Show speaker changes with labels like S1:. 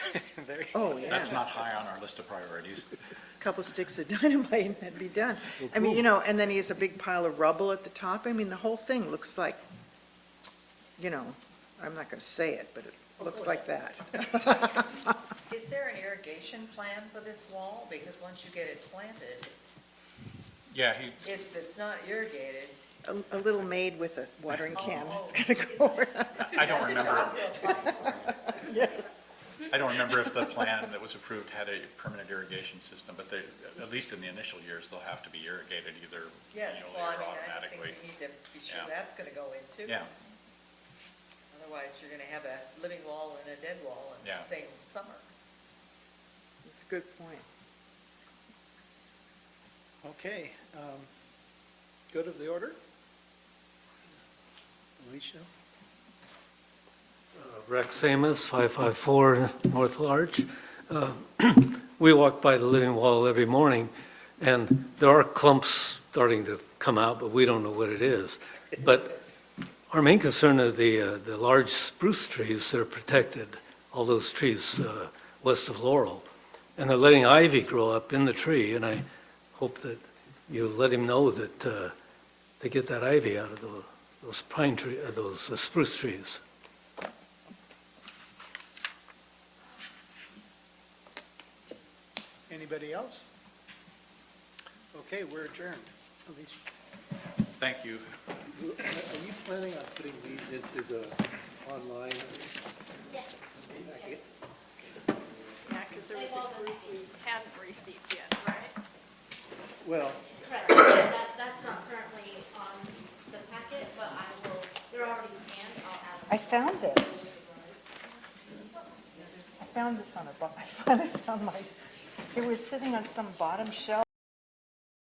S1: there.
S2: Oh, yeah.
S1: That's not high on our list of priorities.
S2: couple sticks of dynamite and that'd be done. I mean, you know, and then he has a big pile of rubble at the top. I mean, the whole thing looks like, you know, I'm not going to say it, but it looks like that.
S3: Is there an irrigation plan for this wall? Because once you get it planted,
S1: Yeah, he,
S3: if it's not irrigated.
S2: A, a little maid with a watering can
S3: Oh, oh.
S2: is going to go around.
S1: I don't remember,
S2: Yes.
S1: I don't remember if the plan that was approved had a permanent irrigation system, but they, at least in the initial years, they'll have to be irrigated either
S3: Yes,
S1: manually
S3: well, I
S1: or
S3: mean, I think we
S1: automatically.
S3: need to be sure
S1: Yeah.
S3: that's gonna go in too.
S1: Yeah,
S3: Otherwise, you're gonna have a living wall and a dead wall in
S1: Yeah.
S3: the same summer.
S2: That's a good point.
S4: Okay, um, good of the order? Alicia?
S5: Rex Amos, 554 North Larch. Uh, We walk by the living wall every morning, and there are clumps starting to come out, but we don't know what it is. But our main concern are the, uh, the large spruce trees that are protected, all those trees uh, west of Laurel. And they're letting ivy grow up in the tree, and I hope that you let him know that uh, they get that ivy out of the- those pine tree, uh, those uh, spruce trees.
S4: Anybody else? Okay, we're adjourned. Alicia,
S1: thank you.
S4: are you planning on putting these into the online? Yes.
S6: Yeah, because there was a group we hadn't received yet, right?
S4: Well,
S7: Correct, that, that's not currently on the packet, but I will, they're already scanned, I'll add them.
S2: I found this. I found this on a, bo- I finally found my, it was sitting on some bottom shelf.